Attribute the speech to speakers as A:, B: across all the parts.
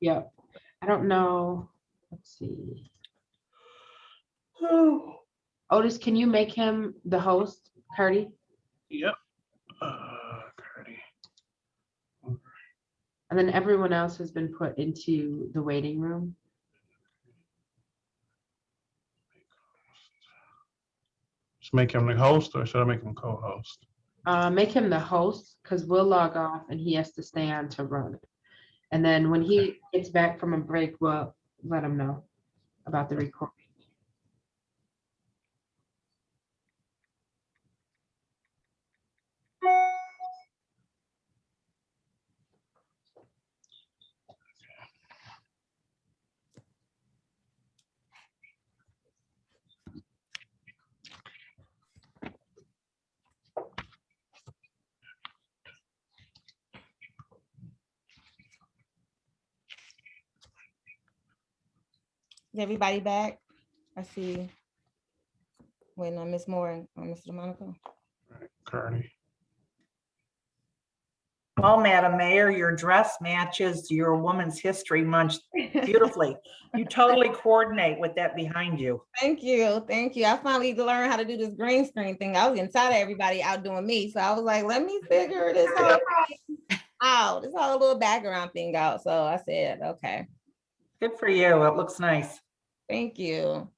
A: Yep. I don't know. Let's see. Otis, can you make him the host, Cardi?
B: Yep. Uh, Cardi.
A: And then everyone else has been put into the waiting room.
B: Just make him the host or should I make him co-host?
A: Uh, make him the host because we'll log off and he has to stay on to run. it. And then when he gets back from a break, we'll let him know about the recording.
C: Is everybody back? I see. When uh, Ms. Moore and uh, Mr. DeMonico.
B: Right, Cardi.
D: Well, Madam Mayor, your dress matches your Women's History Month beautifully. You totally coordinate with that behind you.
C: Thank you, thank you. I finally learned how to do this green screen thing. I was getting tired of everybody outdoing me, so I was like, let me figure this whole thing out. Oh, This whole little background thing out. So I said, okay,
D: Good for you. It looks nice.
C: thank you.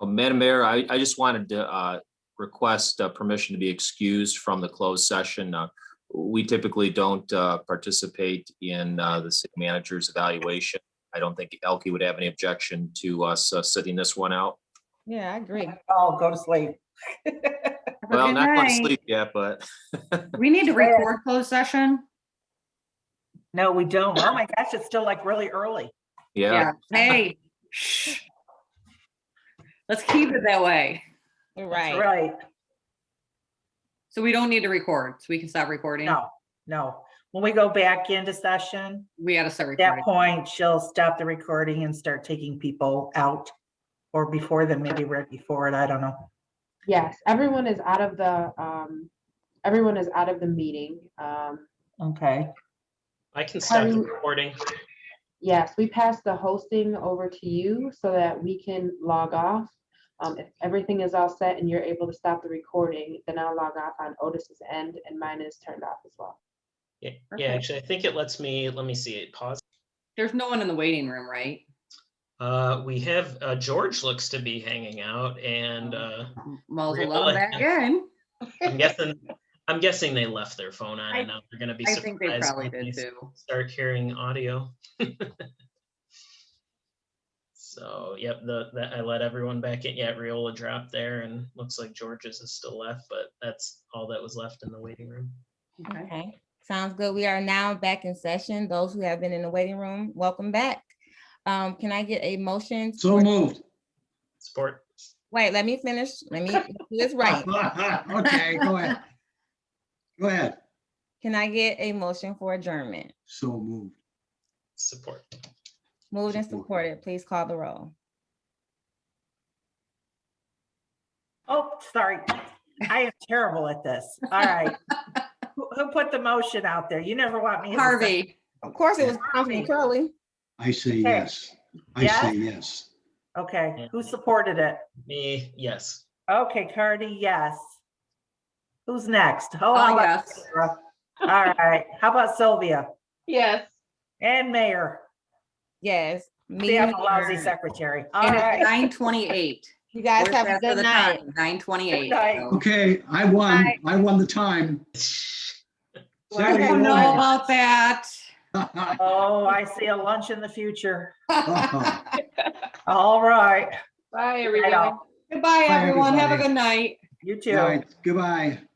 E: Oh, Madam Mayor, I, I just wanted to uh, request uh, permission to be excused from the closed session. Uh, We typically don't uh, participate in uh, the city manager's evaluation. I don't think Elke would have any objection to us uh, sitting this one out.
C: Yeah, I agree.
D: Oh, go to sleep.
F: Have a
E: Well,
F: good
E: not going to
F: night.
E: sleep yet, but
F: We need to
D: Yeah.
F: record closed session.
D: No, we don't. Oh my gosh, it's still like really early.
E: yeah.
F: Hey. shh. Let's keep it that way.
C: You're
D: That's
C: right.
D: Right.
F: So we don't need to record, so we can stop recording.
D: No, no. When we go back into session,
F: We gotta start
D: at that
F: recording.
D: point, she'll stop the recording and start taking people out. Or before them, maybe right before it. I don't know.
A: Yes, everyone is out of the, um, everyone is out of the meeting. Um,
D: Okay.
G: I can stop the
A: Pardon?
G: recording.
A: Yes, we pass the hosting over to you so that we can log off. Um, if everything is all set and you're able to stop the recording, then I'll log off on Otis's end and mine is turned off as well.
G: Yeah, yeah, actually, I think it lets me, let me see, it pause.
F: There's no one in the waiting room, right?
G: Uh, we have, uh, George looks to be hanging out and, uh,
F: Well,
G: Really?
F: let 'em back in.
G: I'm guessing, I'm guessing they left their phone on
F: I-
G: and now they're gonna be
F: I think they
G: surprised
F: probably
G: when they
F: did too.
G: start hearing audio. So, yep, the, that, I let everyone back in. Yeah, Riola dropped there and looks like George's is still left, but that's all that was left in the waiting room.
F: Okay.
C: Okay, sounds good. We are now back in session. Those who have been in the waiting room, welcome back. Um, can I get a motion?
H: So
C: for-
H: moved.
G: Support.
C: Wait, let me finish. Let me do this right.
H: Okay, go ahead. Go ahead.
C: Can I get a motion for adjournment?
H: So moved.
G: Support.
C: Moved and
H: Support.
C: supported. Please call the roll.
D: Oh, sorry. I am terrible at this. All right. Who who put the motion out there? You never want me. in the session.
F: Harvey,
C: Of course, it was Councilman Curley.
H: I say yes. I say yes.
D: Okay, who supported it?
G: Me, yes.
D: Okay, Cardi, yes. Who's next? Oh,
F: Oh,
D: how about
F: yes.
D: Sarah? All right, how about Sylvia
A: Yes.
D: and Mayor?
C: Yes. meeting
D: See, I'm a lousy
C: adjourned.
D: secretary. All
F: and it's
D: right,
F: nine twenty-eight.
C: You guys have a good night.
F: Nine
D: Good
F: twenty-eight.
D: night.
H: Okay, I won. I won the time.
F: I
H: Saturday
F: don't know
H: morning.
F: about that.
D: oh, I see a lunch in the future.
H: Bye,
D: All right.
A: Bye,
D: Right off.
F: Goodbye, everyone. Have a
H: everybody.
F: good night.
D: You
H: All
D: too.
H: right, goodbye.